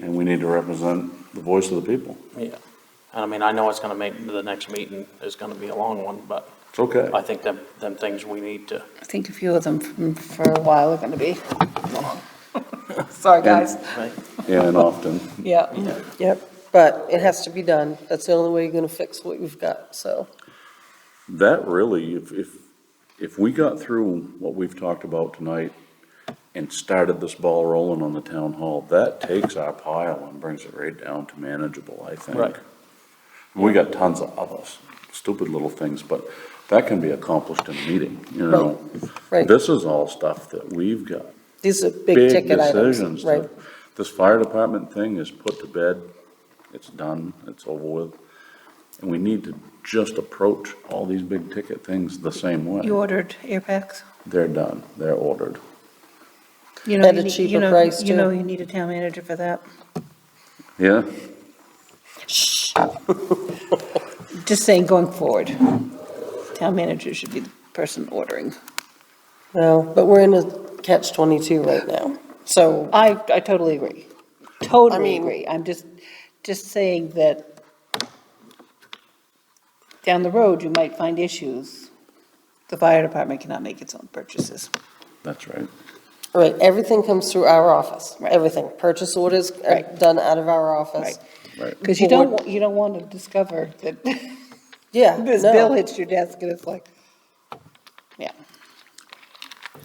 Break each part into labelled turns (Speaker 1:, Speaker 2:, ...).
Speaker 1: and we need to represent the voice of the people.
Speaker 2: Yeah. And I mean, I know it's gonna make, the next meeting is gonna be a long one, but
Speaker 1: It's okay.
Speaker 2: I think them, them things we need to,
Speaker 3: I think a few of them from- for a while are going to be. Sorry, guys.
Speaker 2: right?
Speaker 1: Yeah, and often.
Speaker 4: Yeah, yep, but it has to be done. That's the only way you're gonna fix what you've got, so.
Speaker 1: That really, if, if, if we got through what we've talked about tonight and started this ball rolling on the town hall, that takes our pile and brings it right down to manageable, I think.
Speaker 2: Right.
Speaker 1: We got tons of other stupid little things, but that can be accomplished in a meeting, you know?
Speaker 4: Right.
Speaker 1: This is all stuff that we've got
Speaker 4: These are big
Speaker 1: big
Speaker 4: ticket
Speaker 1: decisions.
Speaker 4: items, right?
Speaker 1: that- This fire department thing is put to bed, it's done, it's over with. And we need to just approach all these big ticket things the same
Speaker 5: You
Speaker 1: way.
Speaker 5: ordered air packs?
Speaker 1: They're done, they're ordered.
Speaker 5: You know
Speaker 4: At
Speaker 5: you
Speaker 4: a
Speaker 5: need- you
Speaker 4: cheaper
Speaker 5: know-
Speaker 4: price,
Speaker 5: You know
Speaker 4: too.
Speaker 5: you need a town manager for that.
Speaker 1: Yeah,
Speaker 3: Just saying, going forward, town manager should be the person ordering.
Speaker 4: No, but we're in a catch twenty-two right now, so.
Speaker 3: I, I totally agree. Totally
Speaker 4: mean-
Speaker 3: agree. I'm just, just saying that down the road, you might find issues. The fire department cannot make its own purchases.
Speaker 1: that's right.
Speaker 4: Right, everything comes through our office, everything. Purchase orders are
Speaker 3: Right.
Speaker 4: done out of our office.
Speaker 3: Right. Because you
Speaker 4: Board-
Speaker 3: don't, wa- you don't want to discover that this
Speaker 4: Yeah,
Speaker 3: bill
Speaker 4: no,
Speaker 3: hits your desk and it's like, yeah.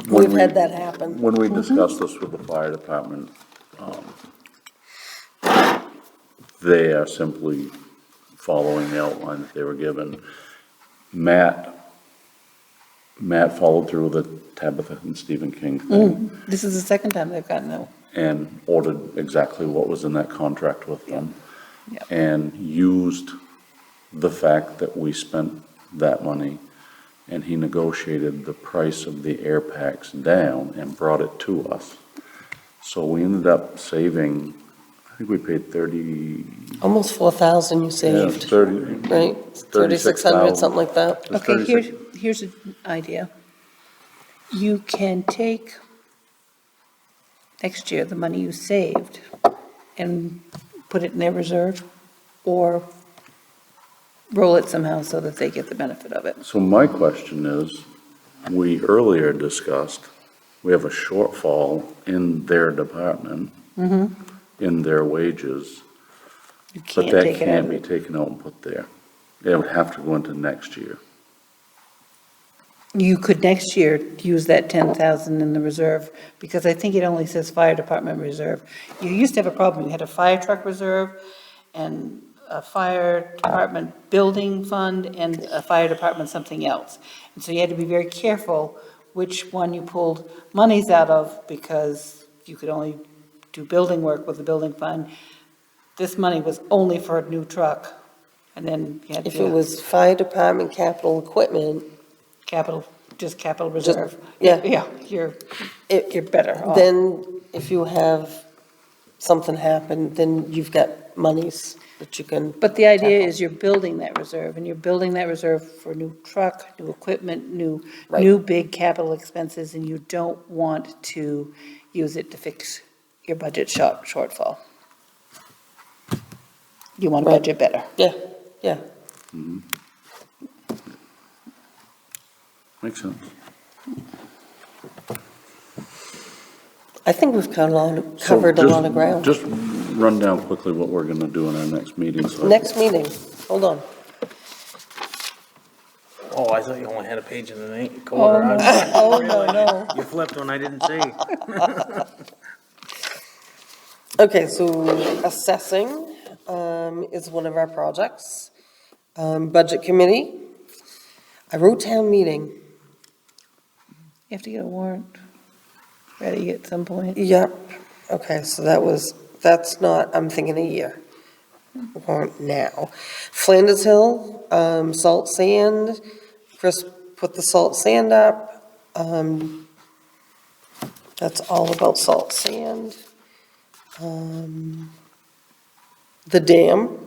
Speaker 4: we've
Speaker 1: When we-
Speaker 4: had that happen. Mm-hmm.
Speaker 1: When we discussed this with the fire department, um, they are simply following the outline that they were given. Matt, Matt followed through with the Tabitha and Stephen King thing.
Speaker 3: Mm, This is the second time they've gotten no.
Speaker 1: and ordered exactly what was in that contract with them.
Speaker 3: Yeah.
Speaker 1: And used the fact that we spent that money and he negotiated the price of the air packs down and brought it to us. So we ended up saving, I think we paid thirty,
Speaker 4: Almost four thousand you
Speaker 1: yeah,
Speaker 4: saved,
Speaker 1: thirty.
Speaker 4: right? Thirty-six hundred, something like that.
Speaker 1: It was
Speaker 3: Okay,
Speaker 1: 36
Speaker 3: here's, here's an idea. You can take next year the money you saved and put it in their reserve or roll it somehow so that they get the benefit of it.
Speaker 1: So my question is, we earlier discussed, we have a shortfall in their department,
Speaker 4: Mm-hmm.
Speaker 1: in their wages,
Speaker 3: You can't
Speaker 1: but that
Speaker 3: take it out
Speaker 1: can't
Speaker 3: of
Speaker 1: be
Speaker 3: it.
Speaker 1: taken out and put there. It would have to go into next year.
Speaker 3: You could next year use that 10,000 in the reserve because I think it only says fire department reserve. You used to have a problem, you had a fire truck reserve and a fire department building fund and a fire department something else. And so you had to be very careful which one you pulled monies out of because you could only do building work with the building fund. This money was only for a new truck and then you had
Speaker 4: If it
Speaker 3: to
Speaker 4: was fire department capital equipment,
Speaker 3: capital, just capital reserve.
Speaker 4: yeah.
Speaker 3: Yeah, you're,
Speaker 4: it,
Speaker 3: you're better off.
Speaker 4: Then if you have something happen, then you've got monies that you can,
Speaker 3: But the idea is you're building that reserve, and you're building that reserve for new truck, new equipment, new,
Speaker 4: Right.
Speaker 3: new big capital expenses, and you don't want to use it to fix your budget short, shortfall. You want to
Speaker 4: Right.
Speaker 3: budget better.
Speaker 4: yeah, yeah.
Speaker 1: Makes sense.
Speaker 4: I think we've covered a lot, of-
Speaker 1: So
Speaker 4: covered a
Speaker 1: just-
Speaker 4: lot of ground.
Speaker 1: Just run down quickly what we're gonna do in our next meeting. so-
Speaker 4: Next meeting, hold on.
Speaker 2: Oh, I thought you only had a page and an eight quarter. I-
Speaker 4: Oh, no, no.
Speaker 6: You flipped when I didn't see.
Speaker 4: Okay, so assessing, um, is one of our projects. Um, budget committee. I wrote town meeting.
Speaker 3: You have to get a warrant ready at some point.
Speaker 4: Yep, okay, so that was, that's not, I'm thinking a year, or now. Flanders Hill, um, salt sand, Chris put the salt sand up, um, that's all about salt sand. Um, The dam,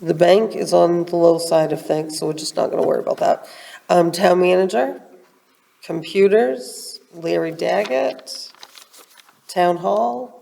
Speaker 4: the bank is on the low side of things, so we're just not gonna worry about that. Um, town manager, computers, Larry Daggett, Town Hall,